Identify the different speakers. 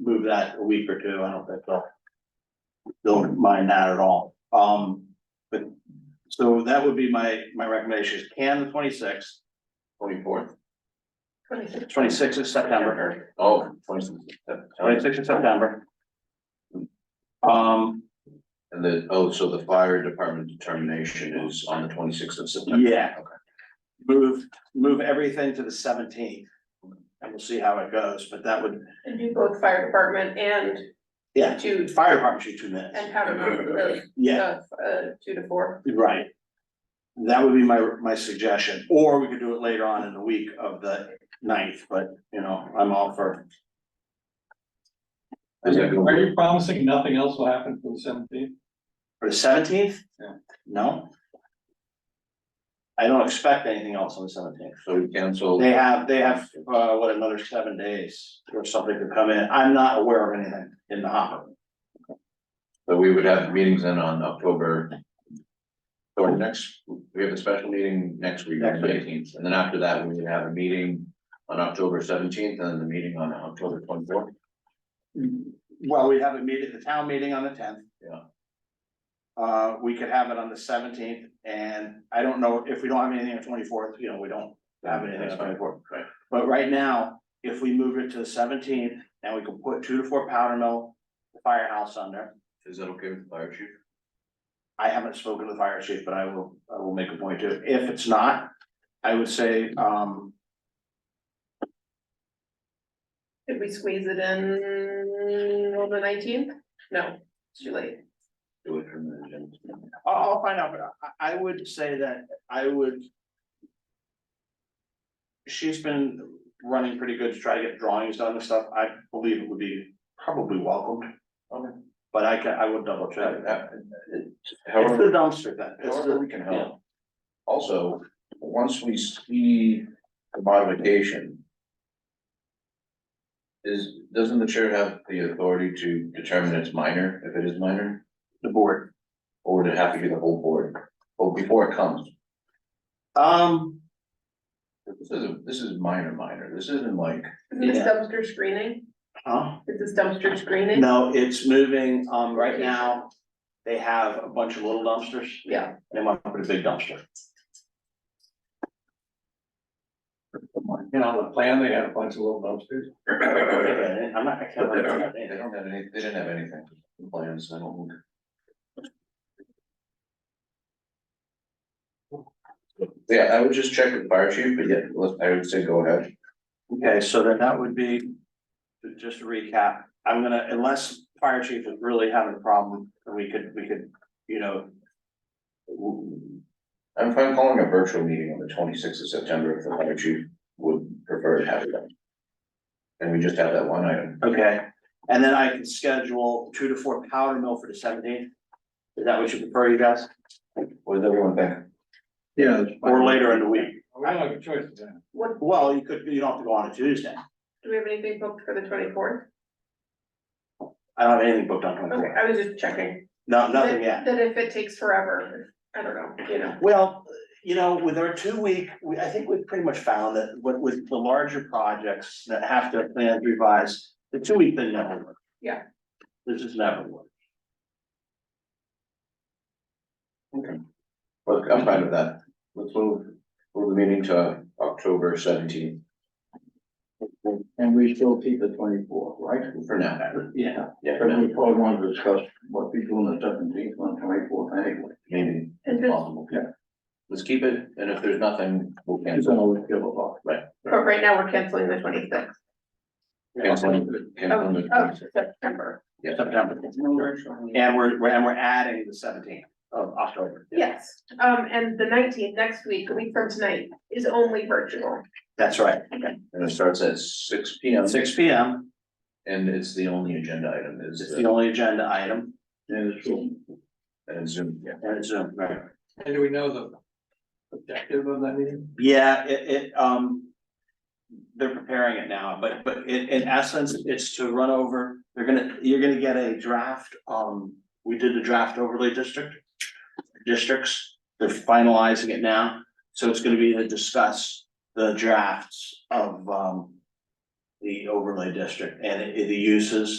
Speaker 1: move that a week or two, I don't think they'll. They'll mind that at all, um, but, so that would be my, my recommendation is can the twenty-sixth. Twenty-fourth.
Speaker 2: Twenty-six.
Speaker 1: Twenty-sixth of September,
Speaker 3: Oh, twenty-six,
Speaker 1: twenty-sixth of September. Um,
Speaker 3: and the, oh, so the fire department determination is on the twenty-sixth of September?
Speaker 1: yeah.
Speaker 3: Okay.
Speaker 1: Move, move everything to the seventeenth. And we'll see how it goes, but that would,
Speaker 2: And do both fire department and
Speaker 1: yeah,
Speaker 2: two,
Speaker 1: fire department should two minutes,
Speaker 2: and powder room, uh,
Speaker 1: yeah.
Speaker 2: uh, two to four.
Speaker 1: Right. That would be my, my suggestion, or we could do it later on in the week of the ninth, but, you know, I'm all for,
Speaker 3: Is that gonna
Speaker 4: Are
Speaker 3: work?
Speaker 4: you promising nothing else will happen for the seventeenth?
Speaker 1: for the seventeenth?
Speaker 4: Yeah.
Speaker 1: No? I don't expect anything else on the seventeenth.
Speaker 3: So we cancel,
Speaker 1: They have, they have, uh, what, another seven days or something to come in. I'm not aware of anything in the hopper.
Speaker 3: so we would have meetings then on October. Or next, we have a special meeting next week, on
Speaker 1: Next
Speaker 3: the
Speaker 1: week.
Speaker 3: eighteenth, and then after that, we would have a meeting on October seventeenth, and then the meeting on October twenty-fourth.
Speaker 1: Well, we have a meeting, the town meeting on the tenth.
Speaker 3: Yeah.
Speaker 1: Uh, we could have it on the seventeenth, and I don't know, if we don't have anything on twenty-fourth, you know, we don't have anything on twenty-fourth.
Speaker 3: Right.
Speaker 1: But right now, if we move it to the seventeenth, and we can put two to four powder mill, the firehouse under.
Speaker 3: Is that okay with the fire chief?
Speaker 1: I haven't spoken to the fire chief, but I will, I will make a point to, it. if it's not, I would say, um,
Speaker 2: Could we squeeze it in on the nineteenth? No, it's too late.
Speaker 3: Do it from the agenda.
Speaker 1: I'll, I'll find out, but I, I would say that I would. She's been running pretty good to try to get drawings done and stuff. I believe it would be probably welcomed.
Speaker 3: Okay.
Speaker 1: But I can, I would double check.
Speaker 3: Uh, uh,
Speaker 1: It's the
Speaker 3: However,
Speaker 1: dumpster then. It's
Speaker 3: however
Speaker 1: the,
Speaker 3: we can help. Also, once we see the modification. Is, doesn't the chair have the authority to determine it's minor, if it is minor,
Speaker 1: the board.
Speaker 3: or would it have to be the whole board? Well, before it comes,
Speaker 1: Um,
Speaker 3: this is, a- this is minor, minor, this isn't like,
Speaker 2: Is this
Speaker 1: Yeah.
Speaker 2: dumpster screening?
Speaker 1: huh?
Speaker 2: Is this dumpster screening?
Speaker 1: No, it's moving, um, right now, they have a bunch of little dumpsters.
Speaker 2: Yeah,
Speaker 1: They want to put a big dumpster.
Speaker 4: You know, the plan, they had a bunch of little dumpsters.
Speaker 1: I'm not, I can't. remember.
Speaker 3: they don't have any, they didn't have anything, in plans, I don't. Yeah, I would just check with fire chief, but yeah, let's- I would say go ahead.
Speaker 1: Okay, so then that would be, to- just to recap, I'm gonna, unless fire chief is really having a problem, we could, we could, you know. w-
Speaker 3: I'm fine calling a virtual meeting on the twenty-sixth of September if the fire chief would prefer to have it. And we just have that one item.
Speaker 1: Okay, and then I can schedule two to four powder mill for the seventeenth. Is that what you prefer, you guys,
Speaker 3: What does everyone think?
Speaker 4: Yeah.
Speaker 1: or later in the week?
Speaker 4: We don't have a choice then.
Speaker 2: what,
Speaker 1: Well, you could, you don't have to go on a Tuesday,
Speaker 2: do we have anything booked for the twenty-fourth?
Speaker 1: I don't have anything booked on
Speaker 2: Okay,
Speaker 1: twenty-four,
Speaker 2: I was just checking.
Speaker 1: no, nothing
Speaker 2: Then-
Speaker 1: yet.
Speaker 2: Then if it takes forever, I don't know, you know,
Speaker 1: Well, you know, with our two week, we, I think we've pretty much found that with, with the larger projects that have to plan revise, the two week thing never works.
Speaker 2: Yeah.
Speaker 1: This is never worked.
Speaker 3: Look, I'm fine with that. Let's move, move the meeting to October seventeenth
Speaker 5: And we still keep the twenty-four, right?
Speaker 3: for now.
Speaker 1: Yeah.
Speaker 3: Yeah, for
Speaker 5: But
Speaker 3: now,
Speaker 5: we probably want to discuss what we do on the seventeenth, on twenty-fourth anyway.
Speaker 3: maybe
Speaker 2: and this,
Speaker 3: possible. Yeah. Let's keep it, and if there's nothing, we'll
Speaker 5: It's
Speaker 3: cancel.
Speaker 5: always give a lot.
Speaker 2: but right now we're canceling the twenty-sixth
Speaker 3: Cancel, cancel
Speaker 2: of,
Speaker 3: the
Speaker 2: of September.
Speaker 1: September, and we're, we're- and we're adding the seventeenth of October.
Speaker 2: Yes, um, and the nineteenth, next week, a week from tonight, is only virtual.
Speaker 1: That's right,
Speaker 3: And it starts at six P M,
Speaker 1: six P M
Speaker 3: and it's the only agenda item is,
Speaker 1: is
Speaker 3: the-
Speaker 1: the only agenda item,
Speaker 5: And it's true.
Speaker 3: and Zoom.
Speaker 1: and it's Zoom, right?
Speaker 4: And do we know the objective of that meeting?
Speaker 1: Yeah, it, it, um. They're preparing it now, but, but in, in essence, it's to run over, they're gonna, you're gonna get a draft, um, we did the draft overlay district. Districts, they're finalizing it now, so it's gonna be to discuss the drafts of, um. The overlay district and the uses